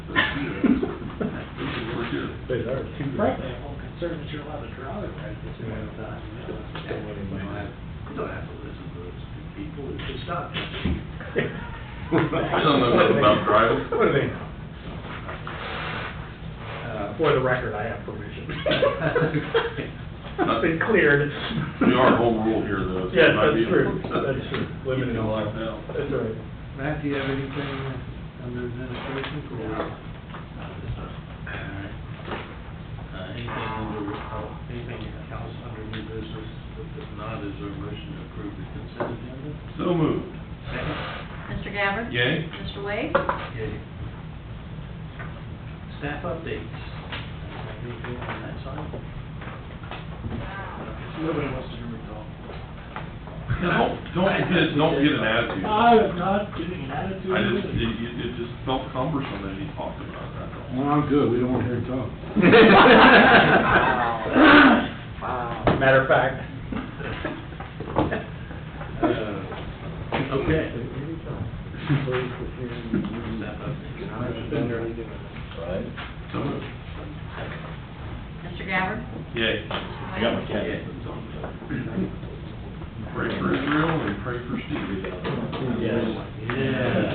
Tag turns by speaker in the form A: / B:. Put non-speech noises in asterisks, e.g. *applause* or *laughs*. A: *laughs*
B: They are too.
C: Frankly, I'm more concerned that you're allowed to draw it right this point in time, you know?
B: Don't let anybody have-
C: You don't have to listen to those people, it's just not.
A: I don't know nothing about driving.
B: What do they know? Uh, for the record, I have
A: *laughs*
B: permission. It's been cleared.
A: We are home rule here, though. so it
B: Yes,
A: might
B: that's
A: be-
B: true, that's true. Living in
A: Keeping it
B: a
A: locked down.
B: That's
A: *laughs*
B: right.
D: Matt, do you have anything under administration for?
C: Uh, anything under, uh, anything else under new business, if not, is there a motion to approve the consent agenda?
A: So moved.
C: Second?
E: Mr. Gabbard?
A: Yay.
E: Mr. Wade?
C: Yay. Staff updates. Anything on that side? Nobody wants to hear me talk.
A: No, don't get, don't get an attitude.
C: I
A: I
C: am not getting an attitude.
A: just, it, it it just felt cumbersome that he talked about
C: *laughs*
A: that. that's all.
D: Well, I'm good, we don't want to hear you talk.
B: Matter of fact.
C: Uh, Okay. Staff updates.
A: So moved.
E: Mr. Gabbard?
A: Yay.
E: Mr.
F: I got my
E: Wade?
F: cat.
A: Pray for Israel and pray for Steve.
F: Yes.
C: Yeah.